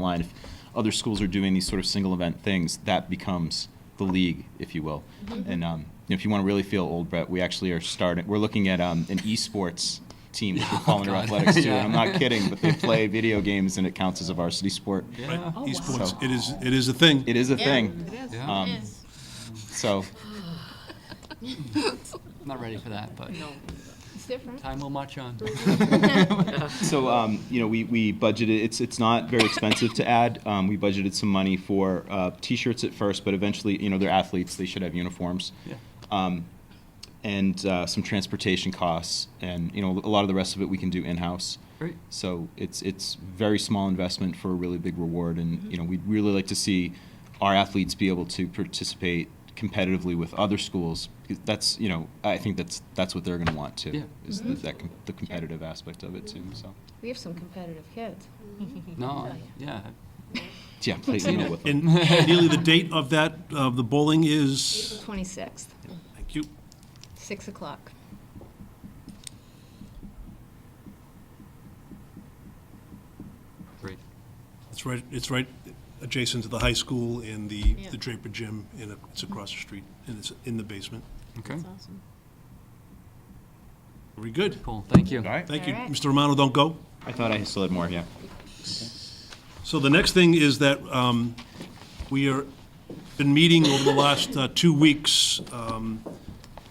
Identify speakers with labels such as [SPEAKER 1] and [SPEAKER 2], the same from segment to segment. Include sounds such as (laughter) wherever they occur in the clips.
[SPEAKER 1] line, if other schools are doing these sort of single event things, that becomes the league, if you will. And um, you know, if you want to really feel old, Brett, we actually are starting. We're looking at um, an esports team that
[SPEAKER 2] (laughs)
[SPEAKER 1] would fall under
[SPEAKER 2] Oh, God.
[SPEAKER 1] athletics too.
[SPEAKER 2] (laughs) Yeah.
[SPEAKER 1] And I'm not kidding, but they play video games and it counts as a varsity sport.
[SPEAKER 2] Yeah,
[SPEAKER 3] Oh,
[SPEAKER 4] Esports,
[SPEAKER 1] wow.
[SPEAKER 4] it is, it is a thing.
[SPEAKER 1] It is a
[SPEAKER 3] Yeah.
[SPEAKER 1] thing.
[SPEAKER 2] yeah.
[SPEAKER 1] Um,
[SPEAKER 3] It
[SPEAKER 1] is. So
[SPEAKER 2] I'm not ready for that, but
[SPEAKER 3] It's different.
[SPEAKER 2] time will march on.
[SPEAKER 1] So, um, you know, we, we budgeted, it's, it's not very expensive to add. Um, we budgeted some money for, uh, t-shirts at first, but eventually, you know, they're athletes, they should have uniforms.
[SPEAKER 2] (laughs) Yeah.
[SPEAKER 1] Um, and, uh, some transportation costs and, you know, a lot of the rest of it we can do in-house.
[SPEAKER 2] Great.
[SPEAKER 1] So it's, it's very small investment for a really big reward and, you know, we'd really like to see our athletes be able to participate competitively with other schools. because That's, you know, I think that's, that's what they're gonna want to.
[SPEAKER 2] Yeah.
[SPEAKER 1] Is the- that, com- the competitive aspect of it too, so.
[SPEAKER 3] We have some competitive kids.
[SPEAKER 2] No, yeah.
[SPEAKER 1] Yeah, play
[SPEAKER 2] Tina.
[SPEAKER 1] Uno with them.
[SPEAKER 4] And nearly the date of that, of the bowling is,
[SPEAKER 3] 26th,
[SPEAKER 4] thank you,
[SPEAKER 3] 6 o'clock.
[SPEAKER 2] Great.
[SPEAKER 4] it's right, it's right adjacent to the high school and the,
[SPEAKER 3] Yeah.
[SPEAKER 4] the Draper Gym, and it's across the street, and it's in the basement.
[SPEAKER 2] Okay.
[SPEAKER 3] awesome.
[SPEAKER 4] Very good.
[SPEAKER 2] Cool. Thank you.
[SPEAKER 1] right.
[SPEAKER 4] Thank you.
[SPEAKER 3] All right.
[SPEAKER 4] Mr. Romano, don't go.
[SPEAKER 1] I thought I still had more, yeah.
[SPEAKER 4] So the next thing is that um, we are, been meeting over the last uh, two weeks um,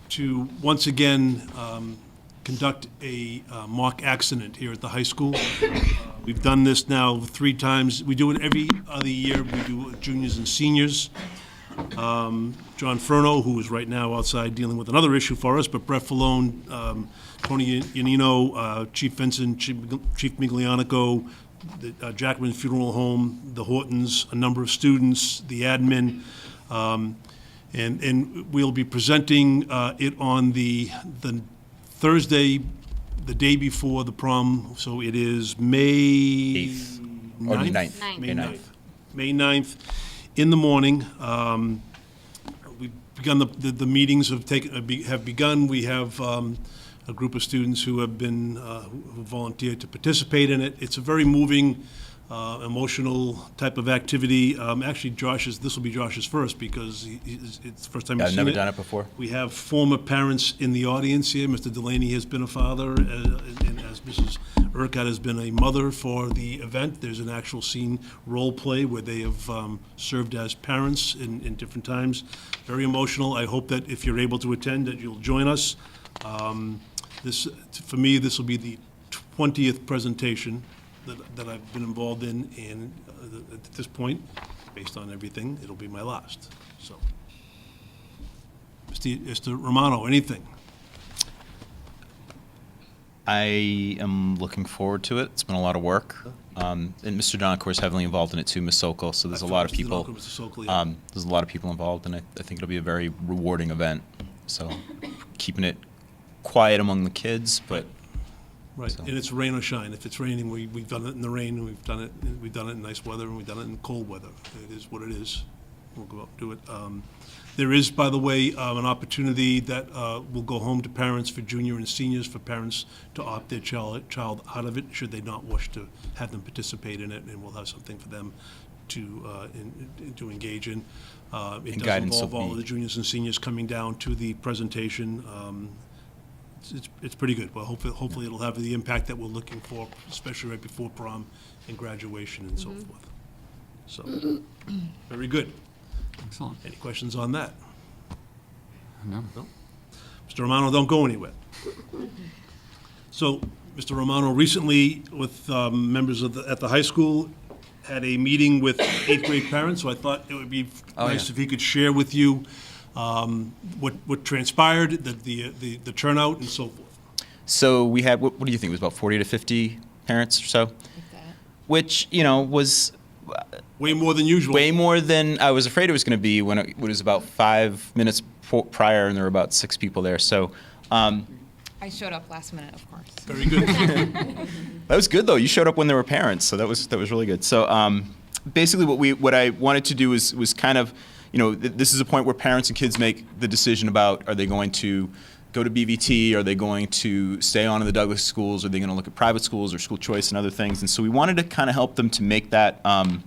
[SPEAKER 4] to once again um, conduct a uh, mock accident here at the high school. Uh, We've done this now three times. We do it every other year. We do juniors and seniors. John Furno, who is right now outside dealing with another issue for us, but Brett Falone, um, Tony Yanino, uh, Chief Vincent, Chief Chief Miglianico, the uh, Jackman Funeral Home, the Hortons, a number of students, the admin. um, And, and we'll be presenting uh, it on the, the Thursday, the day before the prom, so it is May
[SPEAKER 5] Eighth. Or
[SPEAKER 4] ninth.
[SPEAKER 5] ninth.
[SPEAKER 3] Ninth.
[SPEAKER 4] May
[SPEAKER 5] May
[SPEAKER 4] 9th.
[SPEAKER 5] ninth.
[SPEAKER 4] May 9th, in the morning. Um, We've begun, the- the the meetings have taken, have be- have begun. We have um, a group of students who have been, uh, who volunteered to participate in it. It's a very moving, uh, emotional type of activity. Um, Actually, Josh's, this will be Josh's first because he- he's- it's the first time
[SPEAKER 5] Yeah,
[SPEAKER 4] he's
[SPEAKER 5] I've
[SPEAKER 4] seen it.
[SPEAKER 5] never done it before.
[SPEAKER 4] We have former parents in the audience here. Mr. Delaney has been a father, uh, and as Mrs. Urquhart has been a mother for the event. There's an actual scene role play where they have um, served as parents in, in different times. Very emotional. I hope that if you're able to attend, that you'll join us. Um, This, for me, this will be the 20th presentation that, that I've been involved in, and uh, at this point, based on everything, it'll be my last, so. Mr. Mr. Romano, anything?
[SPEAKER 1] I am looking forward to it. It's been a lot of work. Um, and Mr. Donacour is heavily involved in it too, Ms. Sokol, so there's a lot of
[SPEAKER 4] Mr.
[SPEAKER 1] people.
[SPEAKER 4] Duncan, Mr. Sokol, yeah.
[SPEAKER 1] Um, there's a lot of people involved, and I, I think it'll be a very rewarding event. So keeping it quiet among the kids, but
[SPEAKER 4] Right,
[SPEAKER 1] so-
[SPEAKER 4] and it's rain or shine. If it's raining, we, we've done it in the rain, and we've done it, we've done it in nice weather, and we've done it in cold weather. It is what it is. We'll go out and do it. Um, There is, by the way, um, an opportunity that uh, will go home to parents for junior and seniors, for parents to opt their child, child out of it, should they not wish to have them participate in it, and we'll have something for them to, uh, in- in- to engage in. Uh, It
[SPEAKER 1] And
[SPEAKER 4] does
[SPEAKER 1] guidance will
[SPEAKER 4] involve all of
[SPEAKER 1] be-
[SPEAKER 4] the juniors and seniors coming down to the presentation. Um, it's- it's, it's pretty good. Well, hopefully, hopefully it'll have the impact that we're looking for, especially right before prom and graduation and so forth. So, very good.
[SPEAKER 2] Excellent.
[SPEAKER 4] Any questions on that?
[SPEAKER 2] No.
[SPEAKER 4] Mr. Romano, don't go anywhere. So, Mr. Romano recently, with um, members of the, at the high school, had a meeting with eighth grade parents, so I thought it would be nice
[SPEAKER 2] yeah.
[SPEAKER 4] if he could share with you um, what, what transpired, the- the, the the turnout and so forth.
[SPEAKER 1] so we had. What, what do you think? It was about 40 to 50 parents or so, which you know was
[SPEAKER 4] Way more than usual.
[SPEAKER 1] way more than I was afraid it was going to be when it, when it was about five minutes po- prior, and there were about six people there. So. Um,
[SPEAKER 6] I showed up last minute, of course.
[SPEAKER 4] Very good.
[SPEAKER 1] That was good though. You showed up when there were parents, so that was that was really good. So um, basically, what we what I wanted to do was was kind of, you know, th- this is a point where parents and kids make the decision about are they going to go to BVT? Are they going to stay on in the Douglas schools? Are they going to look at private schools or school choice and other things? And so we wanted to kind of help them to make that. Um,